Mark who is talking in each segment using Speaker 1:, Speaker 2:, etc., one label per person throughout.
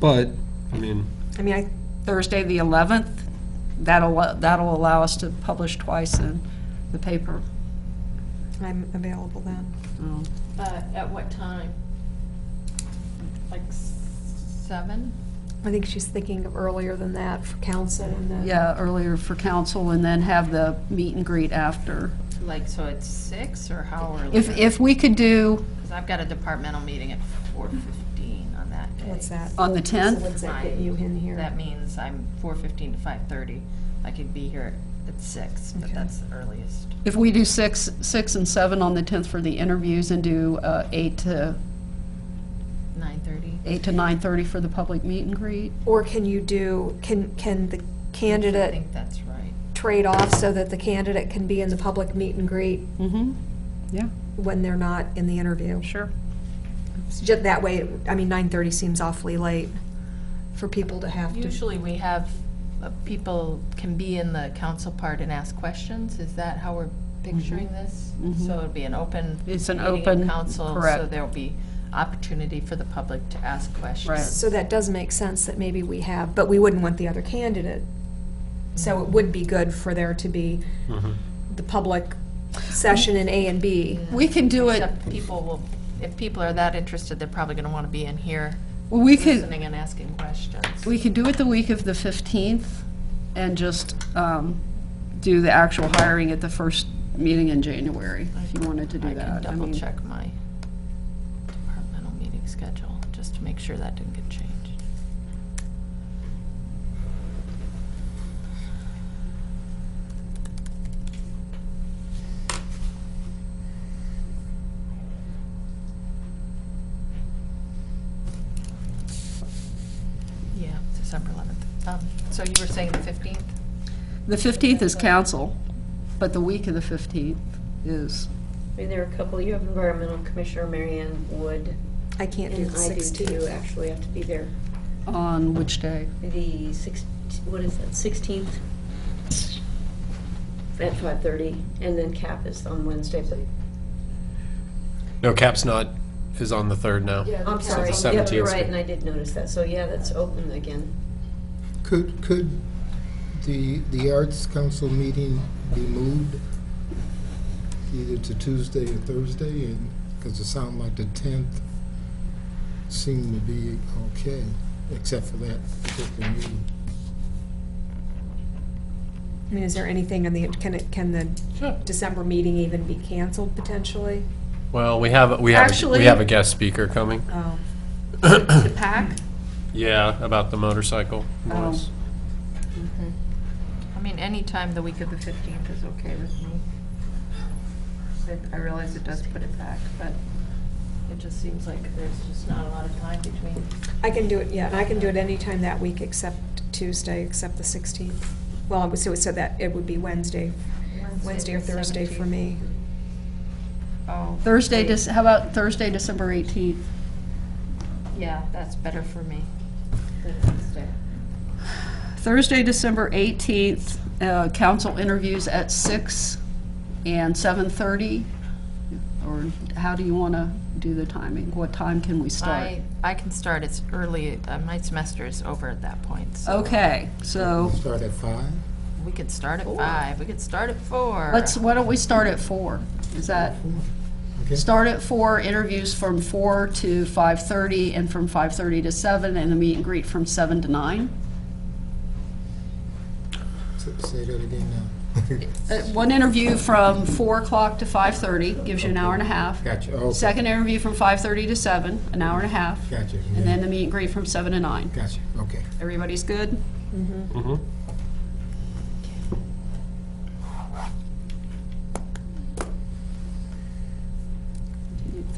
Speaker 1: But, I mean,
Speaker 2: I mean, I- Thursday, the 11th, that'll, that'll allow us to publish twice in the paper.
Speaker 3: I'm available then.
Speaker 2: Um,
Speaker 4: Uh, At what time? Like seven?
Speaker 3: I think she's thinking of earlier than that for council and then.
Speaker 2: Yeah, earlier for council, and then have the meet and greet after.
Speaker 4: Like, so it's six or how early?
Speaker 2: If, if we could do
Speaker 4: Because I've got a departmental meeting at four fifteen on that day.
Speaker 3: What's that?
Speaker 2: on the
Speaker 3: So
Speaker 2: 10th,
Speaker 3: what's that get you in here?
Speaker 4: That means I'm four fifteen to five thirty. I could be here at six, but
Speaker 3: Okay.
Speaker 4: that's the earliest.
Speaker 2: if we do 6, 6 and 7 on the 10th for the interviews, and do uh, 8 to,
Speaker 4: Nine thirty?
Speaker 2: 8 to 9:30 for the public meet and greet,
Speaker 3: Or can you do, can, can the
Speaker 4: I
Speaker 3: candidate
Speaker 4: think that's right.
Speaker 3: trade off so that the candidate can be in the public meet and greet
Speaker 2: mm-hmm, yeah,
Speaker 3: when they're not in the interview?
Speaker 2: sure.
Speaker 3: Just that way, I mean, nine thirty seems awfully late for people to have to.
Speaker 4: Usually we have, uh, people can be in the council part and ask questions. Is that how we're picturing this? So it'd be an open.
Speaker 2: Mm-hmm. It's an
Speaker 4: meeting of
Speaker 2: open-
Speaker 4: Council, so
Speaker 2: correct.
Speaker 4: there'll be opportunity for the public to ask questions.
Speaker 2: Right.
Speaker 3: So that does make sense that maybe we have, but we wouldn't want the other candidate. So it would be good for there to be the public session in A and B.
Speaker 2: We can do it,
Speaker 4: Except people will, if people are that interested, they're probably gonna wanna be in here
Speaker 2: we could.
Speaker 4: listening and asking questions.
Speaker 2: We could do it the week of the 15th and just um, do the actual hiring at the first meeting in January, if you wanted to do that.
Speaker 4: I can double
Speaker 2: mean,
Speaker 4: check my departmental meeting schedule, just to make sure that didn't get changed. Yeah, December 11th. Um, So you were saying the 15th?
Speaker 2: The 15th is council, but the week of the 15th is,
Speaker 5: I mean, there are a couple, you have environmental commissioner, Marianne Wood,
Speaker 3: I can't do
Speaker 5: and
Speaker 3: the
Speaker 5: I do too,
Speaker 3: sixteenth.
Speaker 5: actually, I have to be there.
Speaker 2: on which day?
Speaker 5: The six, what is that, sixteenth? At five thirty, and then CAP is on Wednesday, but,
Speaker 6: No, CAP's not, is on the third now.
Speaker 5: I'm sorry,
Speaker 6: the
Speaker 5: yeah, you're
Speaker 6: 17th.
Speaker 5: right, and I did notice that, so yeah, that's open again.
Speaker 7: Could, could the, the Arts Council meeting be moved either to Tuesday or Thursday? And, because it sounded like the 10th seemed to be okay, except for that particular meeting.
Speaker 3: I mean, is there anything in the, can it, can the December meeting even be canceled potentially?
Speaker 6: Well, we have, we have,
Speaker 2: Actually-
Speaker 6: we have a guest speaker coming.
Speaker 3: Oh,
Speaker 2: The pack?
Speaker 6: Yeah, about the motorcycle noise.
Speaker 4: I mean, any time the week of the 15th is okay with me. I- I realize it does put it back, but it just seems like there's just not a lot of time between.
Speaker 3: I can do it, yeah, and I can do it anytime that week except Tuesday, except the sixteenth. Well, I would- so, so that, it would be Wednesday, Wednesday or Thursday for me.
Speaker 4: Oh.
Speaker 2: Thursday,
Speaker 4: wait.
Speaker 2: Dec- how about Thursday, December 18th?
Speaker 4: Yeah, that's better for me than Wednesday.
Speaker 2: Thursday, December 18th, uh, council interviews at 6 and 7:30? Or how do you want to do the timing? What time can we start?
Speaker 4: I, I can start as early, uh, my semester is over at that point,
Speaker 2: Oh.
Speaker 4: so
Speaker 2: Okay, so
Speaker 7: Start at five?
Speaker 4: we could start at five, we could start at 4
Speaker 2: let's, why don't we start at four? Is that,
Speaker 7: Okay.
Speaker 2: start at four, interviews from four to five-thirty, and from five-thirty to seven, and the meet and greet from seven to nine?
Speaker 7: S- Say that again now.
Speaker 2: Uh, One interview from four o'clock to five-thirty, gives you an hour and a half.
Speaker 7: Gotcha, okay,
Speaker 2: Second interview from five-thirty to seven, an hour and a half,
Speaker 7: gotcha,
Speaker 2: and then the meet and greet from seven to nine.
Speaker 7: gotcha, okay.
Speaker 2: Everybody's good?
Speaker 6: Mhm.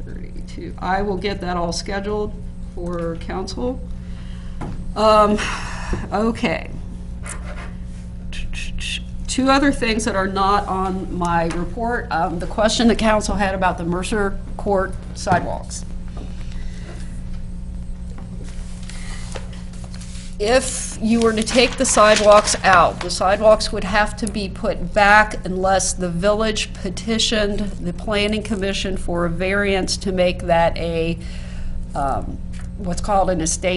Speaker 2: Thirty-two. I will get that all scheduled for council. Um, okay. Two other things that are not on my report. Um, the question the council had about the Mercer Court sidewalks. if you were to take the sidewalks out, the sidewalks would have to be put back unless the village petitioned the planning commission for a variance to make that a, um, what's called an estate